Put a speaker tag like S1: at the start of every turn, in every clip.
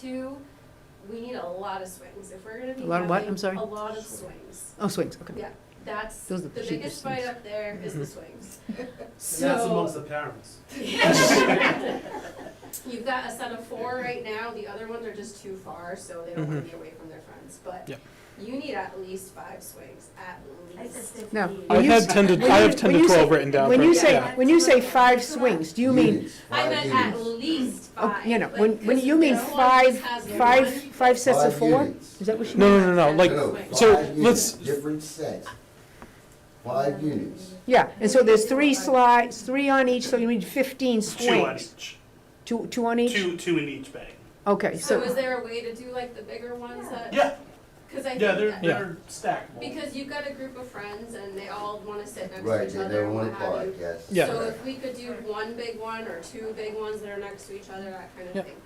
S1: two, we need a lot of swings, if we're gonna be
S2: A lot of what?
S1: having
S2: I'm sorry?
S1: A lot of swings,
S2: Oh, swings, okay.
S1: yeah, that's, the
S2: Those are the
S1: biggest
S2: cheapest
S1: fight
S2: things. Mm-hmm.
S1: up there is the swings.
S3: And that's amongst
S1: So,
S3: the parents.
S1: you've got a set of four right now, the other ones are just too far, so they don't wanna
S2: Mm-hmm.
S1: be away from their friends, but
S4: Yep.
S1: you need at least five swings, at least.
S2: Now,
S4: I
S2: when you
S4: had
S2: s-
S4: ten to,
S2: when
S4: I
S2: you-
S4: have ten
S2: when
S4: to
S2: you say-
S4: twelve written down.
S2: When
S4: for-
S2: you say,
S4: yeah.
S2: when you say five swings, do you mean,
S1: I meant at least
S2: oh,
S1: five.
S2: you know,
S1: like,
S2: when, when
S1: 'cause
S2: you mean
S1: no one
S2: five,
S1: just has
S2: five,
S1: one.
S2: five sets of four? Is that what she?
S4: No, no, no, no, like,
S1: No,
S4: so
S5: five
S4: let's,
S5: units, Different sets, five units.
S2: Yeah, and so there's three slides, three on each, so you need fifteen
S3: Two on
S2: swings.
S3: each.
S2: Two, two on each?
S3: Two, two in each bag.
S2: Okay,
S1: So is
S2: so,
S1: there a way to do like the bigger ones that?
S3: Yeah,
S1: Cause I think
S3: yeah, they're,
S1: that-
S4: Yeah.
S3: they're stackable.
S1: because you've got a group of friends and they all wanna sit next to
S5: Right,
S1: each
S5: they
S1: other
S5: never
S1: and
S5: want
S1: what
S5: to
S1: have
S5: park,
S1: you.
S5: yes.
S4: Yeah.
S1: So if we could do one big one or two big ones that are next to each other, that kind
S4: Yeah.
S1: of thing.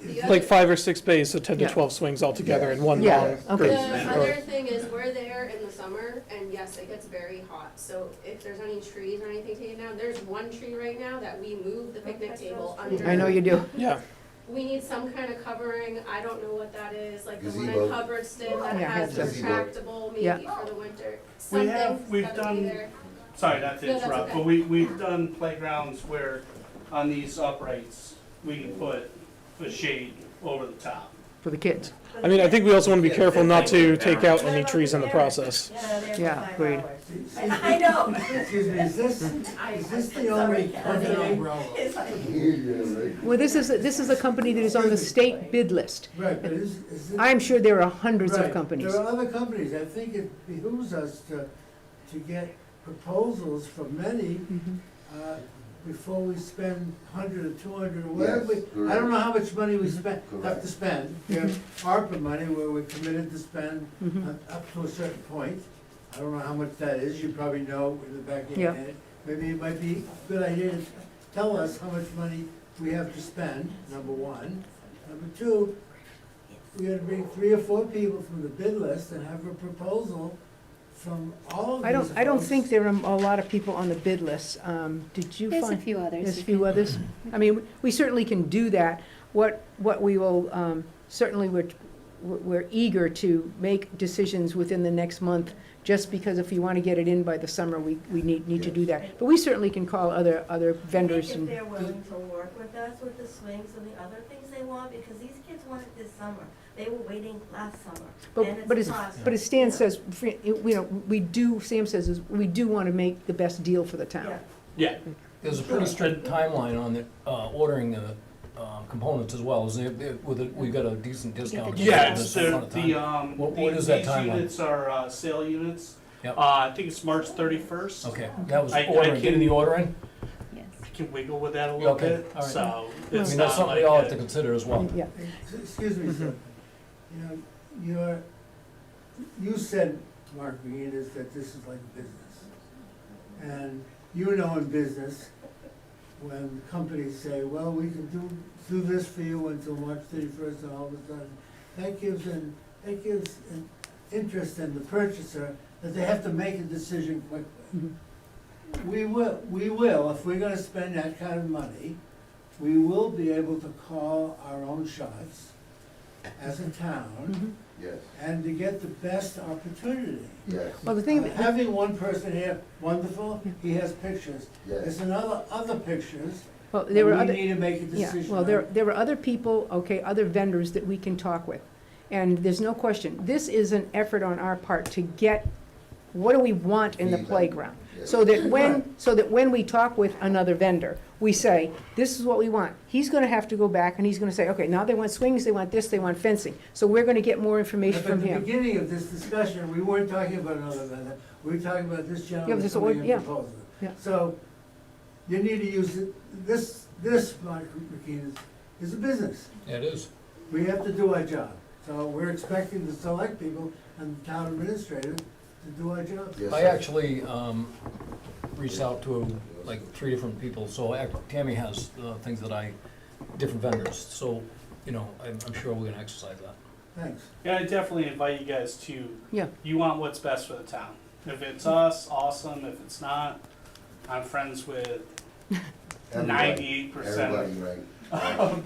S1: The other-
S4: like five or six bays, so ten to
S2: Yeah.
S4: twelve swings altogether in one
S2: Yeah,
S4: long.
S2: okay.
S4: group.
S1: The
S4: Or-
S1: other thing is, we're there in the summer, and yes, it gets very hot, so if there's any trees or anything taken down, there's one tree right now that we moved the picnic table under.
S2: I know you do.
S4: Yeah,
S1: We need some kind of covering, I don't know what that is, like the one in
S5: Gazebo.
S1: Hubbardston that
S2: Yeah.
S1: has the
S5: Gazebo.
S1: retractable,
S2: Yeah.
S1: maybe for the winter,
S3: We
S1: something's
S3: have-
S1: gotta be
S3: we've
S1: there.
S3: done- Sorry, not
S1: No,
S3: to
S1: that's
S3: interrupt,
S1: okay.
S3: but we, we've done playgrounds where on these uprights, we can put a shade over the top.
S2: for the kids.
S4: I mean, I think we also wanna be careful not to take out any trees in the process.
S2: Yeah, agreed.
S6: I know.
S7: Excuse me, is this, is this the only company?
S6: It's like,
S2: Well, this is, this is a company that is on the state bid list.
S7: Right, but is, is it?
S2: I'm sure there are hundreds of
S7: right,
S2: companies.
S7: There are other companies. I think it behooves us to, to get proposals from many,
S2: Mhm.
S7: uh, before we spend hundred or two hundred, or whatever.
S5: Yes,
S7: we- I don't know how much money we spend, have
S5: Correct.
S7: to spend. We have ARPA money where we're committed to spend
S2: Mhm.
S7: up- up to a certain point. I don't know how much that is, you probably know in the back of your
S2: Yeah.
S7: head. Maybe it might be a good idea to tell us how much money we have to spend, number one. Number two, we gotta bring three or four people from the bid list and have a proposal from all of these
S2: I don't, I don't
S7: folks.
S2: think there are a lot of people on the bid list. Um, Did you
S8: There's a
S2: find?
S8: few others.
S2: There's a
S8: you
S2: few
S8: can-
S2: others. I mean, we certainly can do that. What, what we will, um, certainly we're, we're eager to make decisions within the next month, just because if you want to get it in by the summer, we, we need, need to do that. But we certainly can call other, other vendors
S6: If
S2: and,
S6: they're willing to work with us with the swings and the other things they want, because these kids want it this summer. They were waiting last summer, and
S2: but, but
S6: it's
S2: as,
S6: possible.
S2: but as Stan says, fr- you know, we do, Sam says, is we do want to make the best deal for the town.
S3: Yeah.
S9: There's a pretty strict timeline on the, uh, ordering the, uh, components as well, is there, there- with, a- we've got a decent discount.
S8: Yeah,
S3: Yeah,
S9: This
S3: it's the,
S9: amount of
S3: the,
S9: time.
S3: um,
S9: What-
S3: the-
S9: what is that
S3: these
S9: timeline?
S3: units are, uh, sale units.
S9: Yep.
S3: Uh, I think it's March thirty-first.
S9: Okay, that was
S3: I- I
S9: ordering, getting the
S3: can-
S9: order in,
S8: Yes.
S3: I can wiggle with that a little
S9: Okay,
S3: bit,
S9: all right.
S3: so
S9: I
S3: it's
S9: mean,
S3: not
S9: that's something
S3: like
S9: we all
S3: a-
S9: have to consider as well.
S2: Yeah,
S7: Ex- Excuse me, sir. You know, you're, you said, Mark Reedus, that this is like a business. And you know in business, when companies say, well, we can do, do this for you until March thirty-first, and all of a sudden, that gives an, that gives an interest in the purchaser, that they have to make a decision quickly.
S2: Mhm.
S7: We will, we will, if we're gonna spend that kind of money, we will be able to call our own shots as a town
S2: Mhm.
S5: Yes,
S7: and to get the best opportunity. Uh,
S5: yes,
S2: Well, the thing,
S7: Having one person here, wonderful, he has pictures.
S5: yes.
S7: There's another, other pictures,
S2: well,
S7: that
S2: there were other.
S7: we need to make a
S2: Yeah,
S7: decision
S2: well, there,
S7: on.
S2: there are other people, okay, other vendors that we can talk with. And there's no question, this is an effort on our part to get, what do we want in the
S5: Feedback.
S2: playground?
S5: yes.
S2: So that when, so that when we talk with another vendor, we say, this is what we want. He's gonna have to go back and he's gonna say, okay, now they want swings, they want this, they want fencing. So we're gonna get more information
S7: But
S2: from
S7: at the
S2: him.
S7: beginning of this discussion, we weren't talking about another vendor, we were talking about this gentleman
S2: this
S7: coming
S2: or-
S7: in
S2: yeah,
S7: proposal.
S2: yeah.
S7: So, you need to use, it- this, this, Mark McKeon, is, is a business.
S9: Yeah, It is.
S7: We have to do our job. So we're expecting the select people and the town administrator to do our job.
S5: Yes,
S9: I
S5: sir.
S9: actually, um, reached out to like three different people, so act- Tammy has, uh, things that I, different vendors, so, you know, I'm, I'm sure we're gonna exercise that.
S7: Thanks.
S3: Yeah, I definitely invite you guys to.
S2: Yeah.
S3: You want what's best for the town. If it's us, awesome. If it's not, I'm friends with
S5: Everybody-
S3: ninety-eight percent
S5: Everybody, right.
S3: of